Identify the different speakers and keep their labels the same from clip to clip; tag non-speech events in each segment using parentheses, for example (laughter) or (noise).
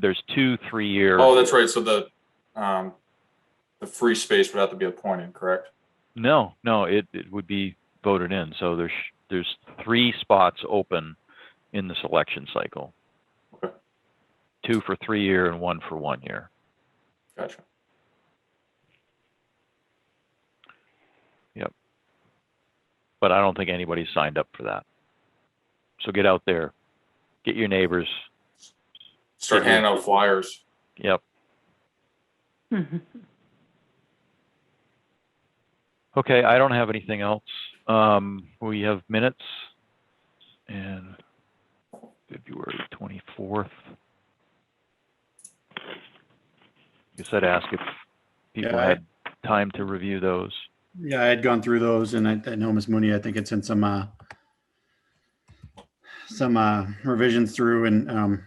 Speaker 1: there's two three-year.
Speaker 2: Oh, that's right. So the, um, the free space would have to be appointed, correct?
Speaker 1: No, no, it, it would be voted in. So there's, there's three spots open in this election cycle.
Speaker 2: Okay.
Speaker 1: Two for three year and one for one year.
Speaker 2: Gotcha.
Speaker 1: But I don't think anybody's signed up for that. So get out there, get your neighbors.
Speaker 2: Start handing out flyers.
Speaker 1: Yep.
Speaker 3: Mm-hmm.
Speaker 1: Okay, I don't have anything else. Um, we have minutes and February twenty-fourth. You said ask if people
Speaker 4: Yeah, I-
Speaker 1: had time to review those.
Speaker 4: Yeah, I had gone through those and I, I know Ms. Mooney, I think it's in some, uh, some, uh, revisions through and, um,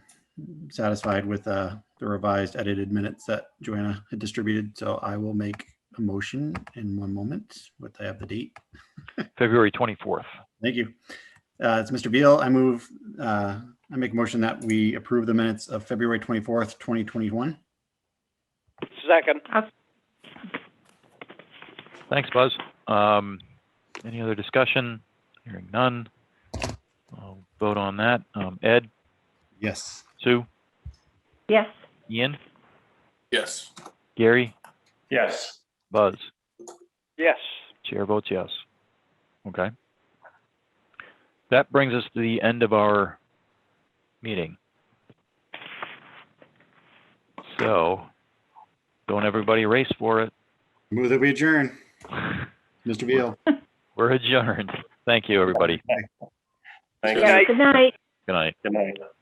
Speaker 4: satisfied with, uh, the revised edited minutes that Joanna had distributed. So I will make a motion in one moment with, I have the date.
Speaker 1: February twenty-fourth.
Speaker 4: Thank you. Uh, it's Mr. Beal. I move, uh, I make a motion that we approve the minutes of February 24th, 2021.
Speaker 5: Second.
Speaker 1: Thanks, Buzz. Um, any other discussion? Hearing none. I'll vote on that. Um, Ed,
Speaker 4: Yes.
Speaker 1: Sue,
Speaker 3: Yes.
Speaker 1: Ian,
Speaker 2: Yes.
Speaker 1: Gary,
Speaker 5: Yes.
Speaker 1: Buzz.
Speaker 5: Yes.
Speaker 1: Chair votes yes. Okay. That brings us to the end of our meeting. So, don't everybody race for it. (laughs)
Speaker 4: Move that we adjourn. Mr. Beal.
Speaker 1: We're adjourned. Thank you, everybody.
Speaker 3: Yes. Good night.
Speaker 1: Good night.
Speaker 5: Good night.